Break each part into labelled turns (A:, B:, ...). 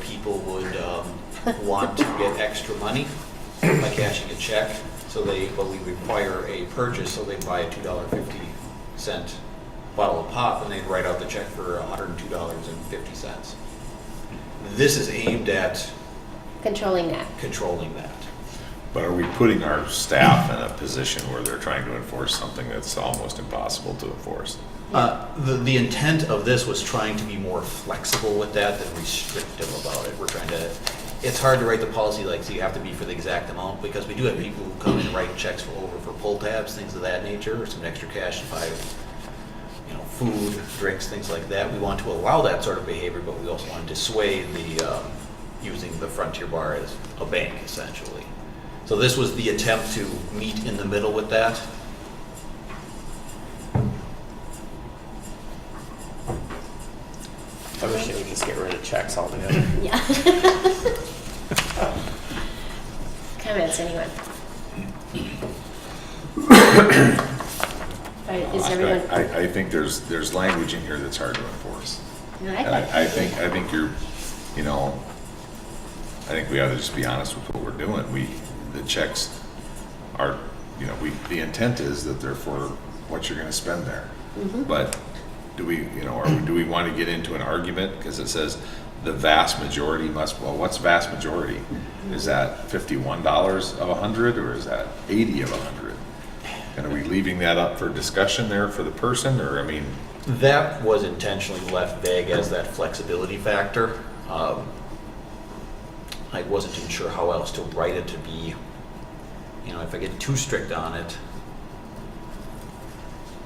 A: people would um, want to get extra money by cashing a check, so they, but we require a purchase, so they buy a two dollar fifty cent bottle of pop, and they'd write out the check for hundred and two dollars and fifty cents. This is aimed at
B: controlling that.
A: controlling that.
C: But are we putting our staff in a position where they're trying to enforce something that's almost impossible to enforce?
A: Uh, The, the intent of this was trying to be more flexible with that than restrictive about it. We're trying to, it's hard to write the policy like, so you have to be for the exact amount, because we do have people who come in and write checks for over for pull tabs, things of that nature, or some extra cash to buy, you know, food, drinks, things like that. We want to allow that sort of behavior, but we also want to dissuade the, um, using the Frontier Bar as a bank essentially. So this was the attempt to meet in the middle with that.
D: I wish they would just get rid of checks altogether.
B: Yeah. Comments, anyone? All right, Is
C: I,
B: everyone,
C: I- I think there's, there's language in here that's hard to enforce.
B: no, I
C: And
B: like
C: I, I think, I think you're, you know, I think we ought to just be honest with what we're doing. We, the checks are, you know, we, the intent is that they're for what you're gonna spend there.
B: Mm-hmm.
C: But do we, you know, or do we want to get into an argument? Because it says the vast majority must, well, what's vast majority? Is
B: Mm-hmm.
C: that fifty-one dollars of a hundred or is that eighty of a hundred? And are we leaving that up for discussion there for the person or, I mean,
A: That was intentionally left vague as that flexibility factor. Um, I wasn't even sure how else to write it to be, you know, if I get too strict on it.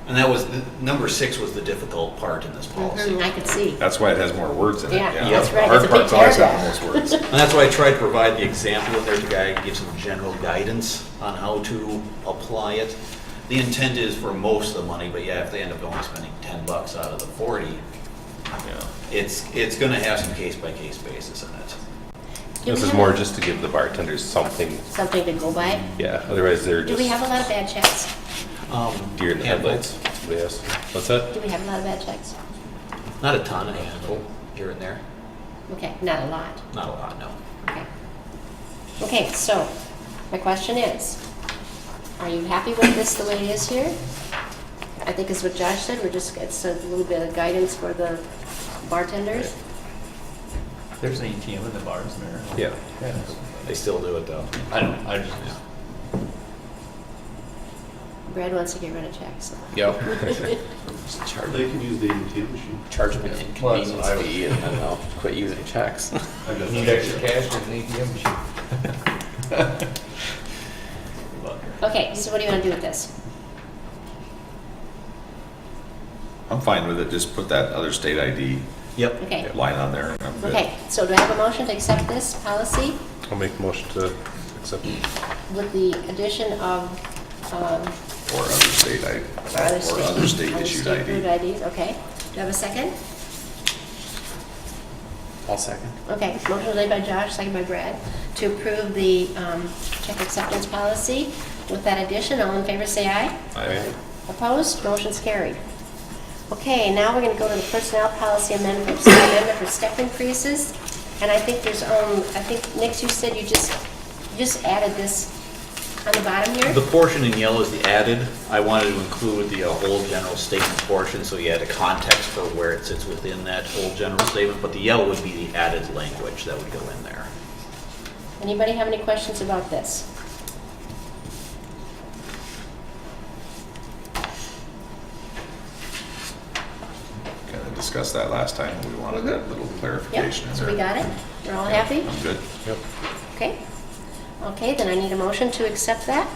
A: And that was, the- number six was the difficult part in this policy.
B: Mhm, I could see.
C: that's why it has more words in it.
B: Yeah,
A: that's
C: the
B: right.
C: Hard
B: It's a big
C: part's always having
B: paragraph.
C: most words.
A: And that's why I tried to provide the example in there to guy give some general guidance on how to apply it. The intent is for most of the money, but yeah, if they end up only spending ten bucks out of the forty,
C: Yeah.
A: it's, it's gonna have some case by case basis in it.
B: Do
E: This
B: we
E: is
B: have
E: more just to give the bartenders something,
B: Something to go by?
E: yeah, otherwise they're
B: Do
E: just
B: we have a lot of bad checks?
A: Um,
E: deer in the
A: handful.
E: headlights. Yes, what's that?
B: Do we have a lot of bad checks?
A: Not a ton, a handful here and there.
B: Okay, not a lot.
A: Not a lot, no.
B: Okay. Okay, so my question is, are you happy with this the way it is here? I think is what Josh said, we're just, it's a little bit of guidance for the bartenders.
F: There's an ATM in the bars there.
E: Yeah.
A: They still do it though.
F: I don't, I just,
B: Brad wants to get rid of checks.
E: Yep.
G: They can use the ATM machine.
D: Charge them an
F: Well, that's what
D: inconvenience
F: I would-
D: fee and then they'll quit using checks.
G: I guess
F: need
G: that's-
F: extra cash, there's an ATM machine.
B: Okay, so what do you want to do with this?
C: I'm fine with it, just put that other state ID
A: Yep.
B: Okay,
C: line on there, and I'm good.
B: okay, so do I have a motion to accept this policy
E: I'll make uh, a motion to accept.
B: with the addition of, um,
C: Or other state ID,
B: other
C: or
B: state?
C: other state issued
B: Other state-approved
C: ID.
B: IDs, okay. Do you have a second?
D: I'll second.
B: Okay, motion made by Josh, second by Brad, to approve the um, check acceptance policy. With that addition, all in favor say aye.
C: Aye.
B: Opposed, motion's carried. Okay, now we're going to go to the personnel policy amendment for amendment for step increases. And I think there's, um, I think, Nick, you said you just, you just added this on the bottom here?
A: The portion in yellow is the added. I wanted to include the uh, whole general statement portion, so you had a context for where it sits within that whole general statement, but the yellow would be the added language that would go in there.
B: Anybody have any questions about this?
C: Kind of discussed that last time, we wanted that little
B: Mm-hmm. Yep,
C: clarification in
B: so
C: there.
B: we got it? We're all
C: Yeah,
B: happy?
C: I'm good.
B: Okay. Okay, then I need a motion to accept that.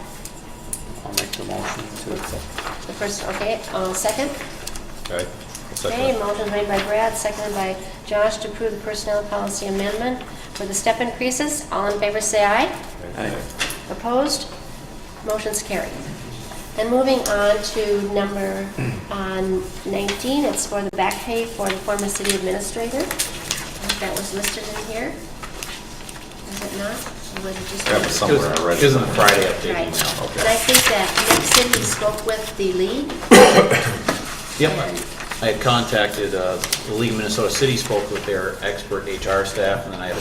D: I'll make the motion to accept.
B: The first, okay, uh, second?
E: Aye. I'll second
B: Okay,
E: it.
B: motion made by Brad, seconded by Josh to approve the personnel policy amendment for the step increases. All in favor, say aye.
D: Aye.
B: Opposed? Motion's carried. Then moving on to number um, 19, it's for the back pay for the former city administrator. I think That was listed in here. Is it not? Or was it just-
C: Yeah, but some- Somewhere I read it.
A: Isn't the Friday update
B: Right.
A: email?
C: Okay.
B: And I think that Nick said he spoke with the league.
A: Yep. I had contacted, uh, the League of Minnesota City spoke with their expert HR staff, and then I had a